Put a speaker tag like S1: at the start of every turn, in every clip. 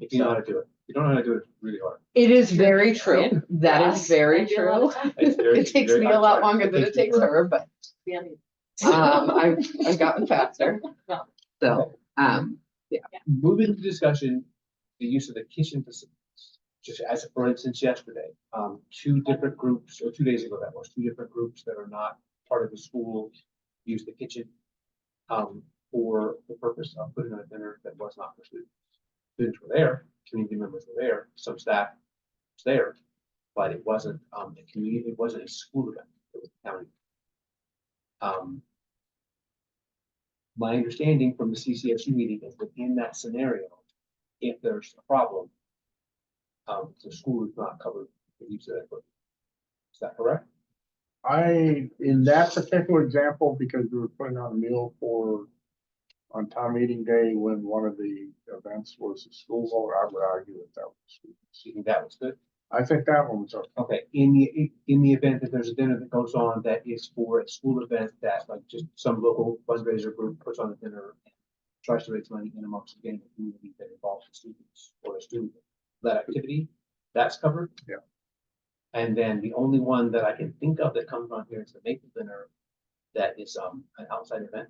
S1: if you know how to do it. If you don't know how to do it, it's really hard.
S2: It is very
S3: Yeah.
S2: true. That is very true.
S1: It's very-
S2: It takes
S1: very
S2: me a lot
S1: hard.
S2: longer than it takes
S1: me-
S2: her, but um, I've, I've gotten faster. So, um,
S1: Moving to discussion, the use of the kitchen facilities, just as for instance yesterday, um, two different groups, or two days ago that was, two different groups that are not part of the school use the kitchen um, for the purpose of putting on a dinner that was not for students. Students were there, community members were there, some staff was there, but it wasn't, um, the community, it wasn't a school event, it was a county. Um, my understanding from the CCSU meeting is that in that scenario, if there's a problem, um, the school is not covered for use of that equipment. Is that correct?
S4: I, in that particular example, because we were putting on a meal for, on town meeting day, when one of the events was a school vote, I would argue that that was.
S1: So you think that was good?
S4: I think that one was, okay.
S1: Okay, in the, in the event that there's a dinner that goes on that is for a school event that like just some local fundraiser group puts on a dinner. and Tries to raise money in amongst again, the community that involves the students or a student, that activity, that's covered.
S4: Yeah.
S1: And then the only one that I can think of that comes on here is the Maple Dinner, that is um an outside event.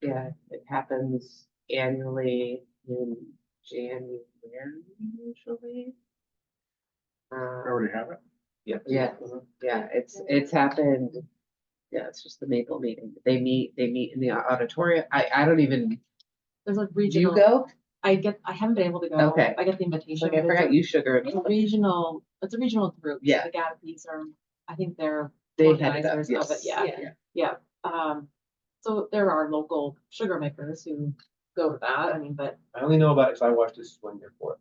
S3: Yeah, it happens annually in January usually.
S4: I
S3: Uh,
S4: already have it.
S1: Yeah.
S3: yeah, yeah, it's, it's happened. Yeah, it's just the Maple meeting. They meet, they meet in the auditorium. I, I don't even,
S5: There's a
S2: do you
S5: regional,
S2: go?
S5: I get, I haven't been able to go.
S3: Okay.
S5: I get the invitation.
S3: like, I
S5: but it's a-
S3: forgot you sugar.
S5: It's a regional, it's a regional group. so
S3: Yeah.
S5: The Gatsby's are, I think they're,
S3: They had it up,
S5: Organizers of it,
S3: yes.
S5: yeah. um, so there are local sugar makers who go to that, I mean, but
S1: I only know about it because I watched this one year for it.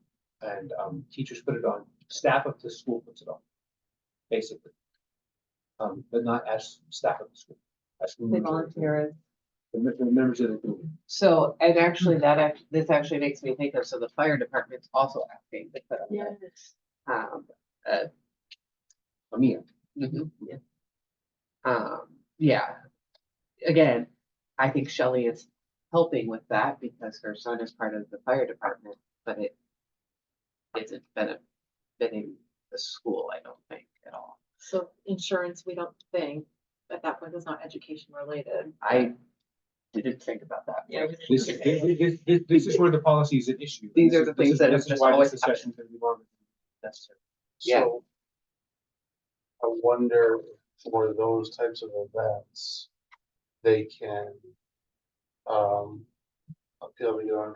S1: And um, teachers put it on, staff of the school puts it on, basically. Um, but not as staff of the school. as school
S2: They
S1: members of the-
S2: volunteer.
S1: The me- the members of the community.
S2: So,
S3: And actually, that, act- this actually makes me think of, so the fire department's also asking to put on that. Um,
S1: I mean,
S3: mhm, yeah. Um, yeah. Again, I think Shelley is helping with that because her son is part of the fire department, but it isn't benefiting the school, I don't think, at all.
S5: so insurance, we don't think, at that point, is not education related.
S3: I didn't think about that.
S5: Yeah.
S1: this is, this- this, this, this is where the policy is an issue.
S3: These
S1: This
S3: are
S1: is-
S3: the
S1: this
S3: things
S1: is-
S3: that
S1: this
S3: have
S1: is
S3: just
S1: why this
S3: always
S1: discussion is gonna be long. Necessary.
S3: Yeah.
S6: So, I wonder for those types of events, they can, um, appeal to your,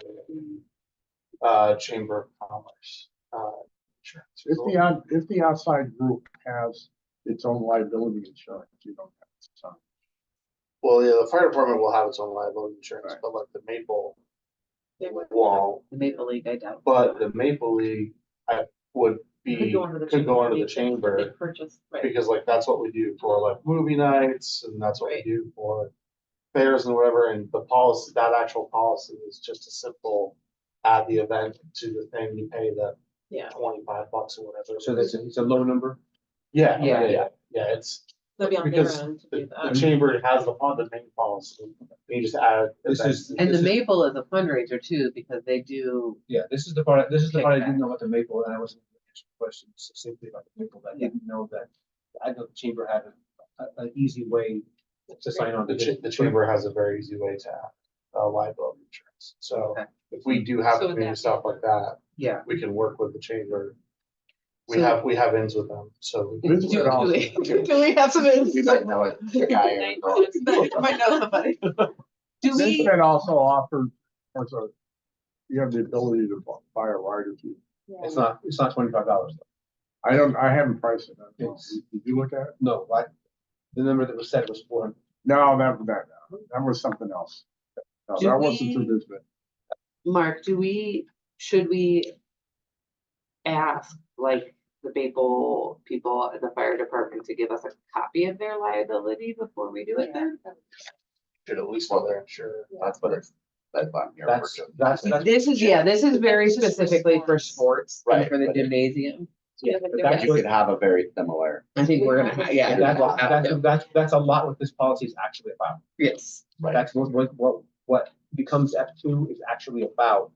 S6: uh, Chamber of Commerce, uh, insurance.
S4: If the, out- if the outside group has its own liability insurance, you don't have to sign.
S6: Well, yeah, the fire department will have its own liability insurance,
S4: Right.
S6: but like the Maple
S5: They would-
S6: won't.
S3: The Maple League, I doubt.
S6: But the Maple League, I would
S5: Could
S6: be,
S5: go under the
S6: could go
S5: chamber.
S6: under the
S5: They
S6: chamber.
S5: purchase, right,
S6: Because like, that's what we do for like movie nights and that's what we
S5: Right.
S6: do for fairs and whatever, and the policy, that actual policy is just a simple add the event to the thing, you pay the
S5: yeah,
S6: twenty-five bucks or whatever. it
S1: So
S6: is.
S1: that's, a- it's a low number.
S6: Yeah,
S3: Yeah.
S6: yeah, yeah, yeah, it's,
S5: they'll be uh, on their
S6: Because
S5: own to do
S6: the, the
S5: that.
S6: chamber has the, on the main policy, and you just add.
S1: This
S6: events.
S1: is-
S3: And the
S1: This
S3: Maple is a fundraiser too, because they do
S1: Yeah, this is the part, this is the part I
S3: Kickback.
S1: didn't know about the maple, and I wasn't able to answer the question succinctly about the maple, but I didn't know that. I know the chamber had a, a, an easy way to sign on. to
S6: The cha-
S1: this.
S6: the chamber has a very easy way to add uh, liability insurance, so
S3: Okay.
S6: if we do have
S5: So would
S6: community
S5: that-
S6: stuff like that,
S3: Yeah.
S6: we can work with the chamber. We
S3: So-
S6: have, we have ends with them, so. we
S4: This
S6: can-
S4: is
S3: Do-
S4: all-
S3: do we- do we have some?
S4: You might know it.
S3: Oh, Might know somebody. Do
S4: This
S3: we,
S4: been also offered as a, you have the ability to bu- buy a rider too.
S1: It's not, it's not twenty-five dollars.
S4: I don't, I haven't priced it. I don't know.
S1: It's-
S4: Did you look at it?
S1: No, I, the number that was said was four hundred.
S4: No, that, that, that was something else. No,
S3: Do
S4: that wasn't
S3: we-
S4: through this, but
S3: Mark, do we, should we ask like the Maple people at the fire department to give us a copy of their liability before we do it then?
S6: Should at least while they're insured. That's what it's, that's what you're.
S1: That's, that's, that's,
S3: This is, yeah, this is very
S5: This is for
S3: specifically for sports and
S6: Right,
S3: for the
S6: but-
S3: gymnasium.
S5: Yeah,
S1: but
S5: they're
S1: that's
S5: right.
S7: You could have a very similar,
S3: I think we're gonna, ha- yeah.
S1: that's,
S3: we'll have
S1: that's,
S3: to.
S1: that's, that's a lot what this policy is actually about.
S3: Yes,
S6: Right.
S1: That's what, what, what, what becomes F two is actually about.